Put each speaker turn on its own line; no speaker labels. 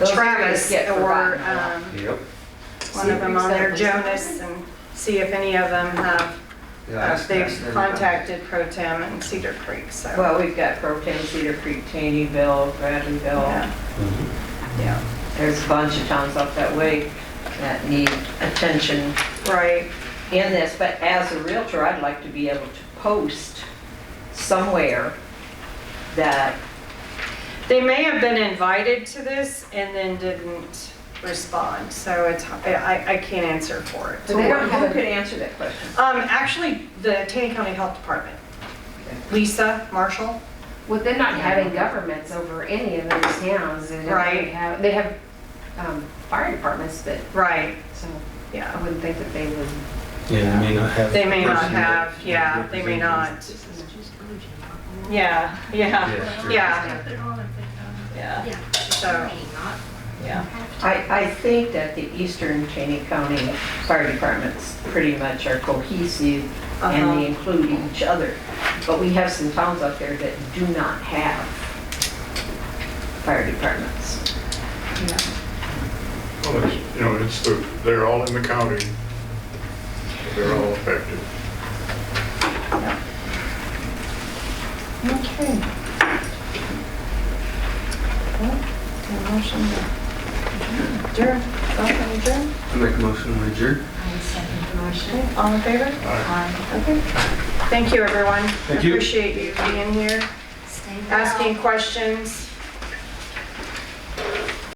Those areas
Travis
get
or
forgotten a lot.
um,
Yep.
one of them on there,
Exactly.
Jonas, and see if any of them have,
Yeah,
uh,
ask- ask
they've
them.
contacted Pro Tem and Cedar Creek, so.
Well, we've got Pro Tem, Cedar Creek, Taneyville, Bradleyville.
yeah.
Mhm.
Yeah, there's a bunch of towns up that way that need attention
Right,
in this, but as a Realtor, I'd like to be able to post somewhere that,
they may have been invited to this and then didn't respond, so it's, I, I can't answer for it.
who who could answer that question?
Um, actually, the Taney County Health Department, Lisa Marshall,
With them not having governments over any of those towns, they don't
Right.
really have, they have um, fire departments, but,
right,
so
yeah.
I wouldn't think that they would.
Yeah, they may not have.
They may not
person that-
have, yeah, they may not. Yeah, yeah,
Yeah, sure.
yeah, yeah, so, yeah.
I, I think that the eastern Cheney County fire departments pretty much are cohesive and they include each other. But we have some towns out there that do not have fire departments.
Well, it's, you know, it's the, they're all in the county. They're all affected.
Okay. Motion. Adjourn, motion adjourn,
I Make a motion, we adjourn.
all in favor? Okay. Thank you, everyone.
Thank you.
Appreciate you being here, asking questions.